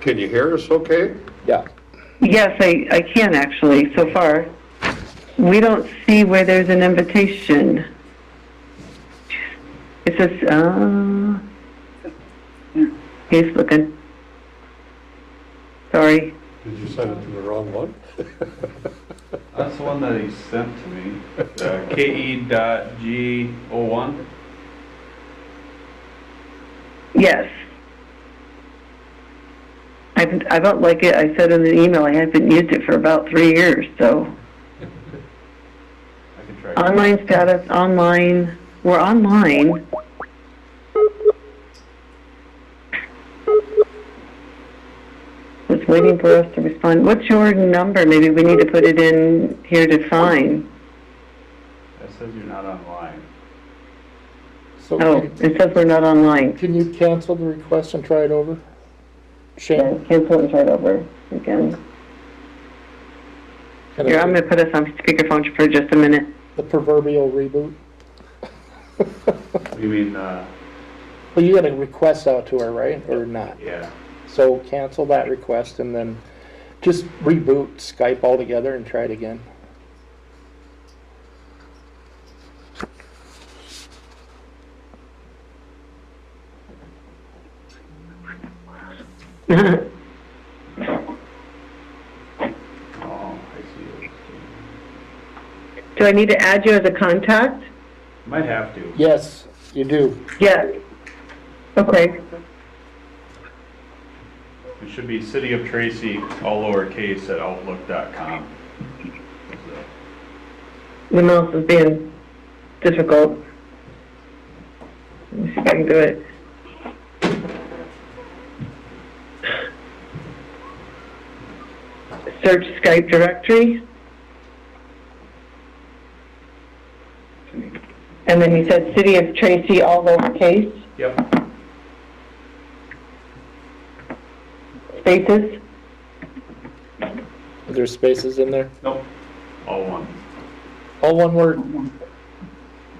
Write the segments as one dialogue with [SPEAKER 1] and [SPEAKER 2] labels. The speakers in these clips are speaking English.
[SPEAKER 1] Can you hear us okay?
[SPEAKER 2] Yeah.
[SPEAKER 3] Yes, I, I can actually, so far. We don't see where there's an invitation. It says, uh, he's looking. Sorry.
[SPEAKER 1] Did you send it to the wrong one?
[SPEAKER 4] That's the one that he sent to me, uh, KE dot G O one.
[SPEAKER 3] Yes. I've, I don't like it. I said in the email I haven't used it for about three years, so.
[SPEAKER 4] I can try.
[SPEAKER 3] Online status, online, we're online. Just waiting for us to respond. What's your number? Maybe we need to put it in here to sign.
[SPEAKER 4] That says you're not online.
[SPEAKER 2] So
[SPEAKER 3] Oh,
[SPEAKER 2] can-
[SPEAKER 3] it says we're not online.
[SPEAKER 2] can you cancel the request and try it over?
[SPEAKER 3] Yeah,
[SPEAKER 2] Shane?
[SPEAKER 3] cancel and start over again.
[SPEAKER 2] can I
[SPEAKER 3] Here, I'm
[SPEAKER 2] do
[SPEAKER 3] gonna put us on speakerphone for just a minute.
[SPEAKER 2] The proverbial reboot?
[SPEAKER 4] You mean, uh,
[SPEAKER 2] Well, you got a request out to her, right, or not?
[SPEAKER 4] yeah,
[SPEAKER 2] So cancel that request and then just reboot Skype altogether and try it again.
[SPEAKER 4] oh, I see it.
[SPEAKER 3] Do I need to add you as a contact?
[SPEAKER 4] Might have to.
[SPEAKER 2] Yes, you do.
[SPEAKER 3] Yes. Okay.
[SPEAKER 4] It should be City of Tracy, all lowercase at outlook dot com. So,
[SPEAKER 3] The mouse is being difficult. Let me see if I can do it. Search Skype directory. And then you said City of Tracy, all lowercase,
[SPEAKER 4] Yep,
[SPEAKER 3] spaces?
[SPEAKER 2] Are there spaces in there?
[SPEAKER 4] nope, all one.
[SPEAKER 2] All one word.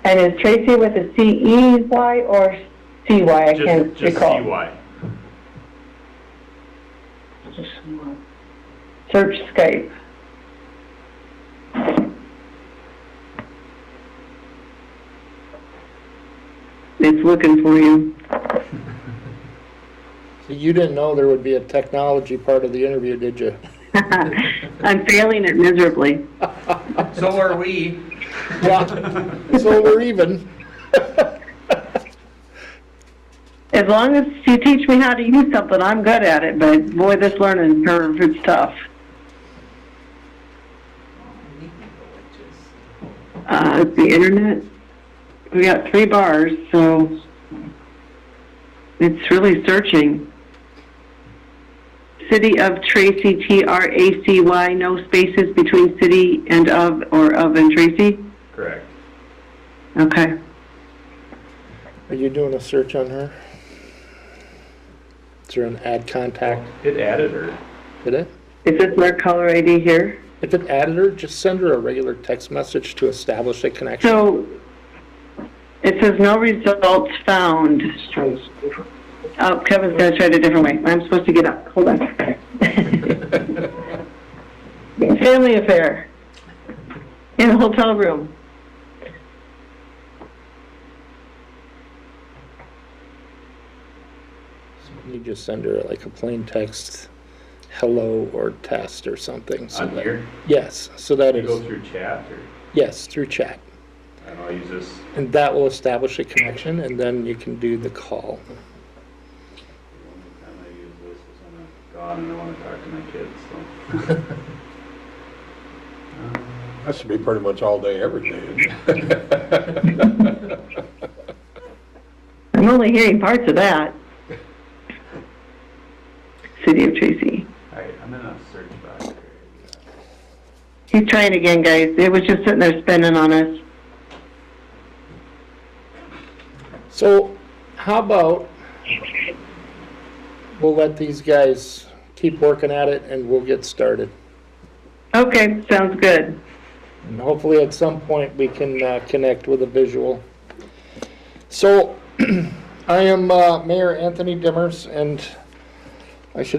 [SPEAKER 3] And is Tracy with a C-E-Y or C-Y? I
[SPEAKER 4] Just,
[SPEAKER 3] can't
[SPEAKER 4] just
[SPEAKER 3] recall.
[SPEAKER 4] CY.
[SPEAKER 3] Search Skype. It's looking for you.
[SPEAKER 2] So You didn't know there would be a technology part of the interview, did you?
[SPEAKER 3] I'm failing it miserably.
[SPEAKER 4] So are we.
[SPEAKER 2] Yeah. So we're even.
[SPEAKER 3] As long as you teach me how to use something, I'm good at it, but boy, this learning curve, it's tough. Uh, it's the internet. We got three bars, so it's really searching. City of Tracy, T-R-A-C-Y, no spaces between city and of, or of and Tracy?
[SPEAKER 4] Correct.
[SPEAKER 3] Okay.
[SPEAKER 2] Are you doing a search on her? Is there an add contact?
[SPEAKER 4] It added her.
[SPEAKER 2] Did it?
[SPEAKER 3] Is this my caller ID here?
[SPEAKER 2] If it added her, just send her a regular text message to establish a connection.
[SPEAKER 3] So it says no results found. Oh, Kevin's gonna try it a different way. I'm supposed to get up. Hold on. Family affair in a hotel room.
[SPEAKER 2] You just send her like a plain text, hello or test or something. so
[SPEAKER 4] On
[SPEAKER 2] that-
[SPEAKER 4] here,
[SPEAKER 2] Yes, so that
[SPEAKER 4] you go
[SPEAKER 2] is,
[SPEAKER 4] through chat or,
[SPEAKER 2] yes, through chat.
[SPEAKER 4] I don't know, I use this.
[SPEAKER 2] And that will establish a connection and then you can do the call.
[SPEAKER 4] The only time I use this is when I'm gone and I want to talk to my kids, so.
[SPEAKER 1] That should be pretty much all day, every day. isn't it?
[SPEAKER 3] I'm only hearing parts of that. City of Tracy.
[SPEAKER 4] All right, I'm in a search box here.
[SPEAKER 3] He's trying again, guys. It was just sitting there spinning on us.
[SPEAKER 2] So how about, we'll let these guys keep working at it and we'll get started.
[SPEAKER 3] Okay, sounds good.
[SPEAKER 2] And hopefully at some point we can uh, connect with a visual. So I am uh, Mayor Anthony Dimmers and I should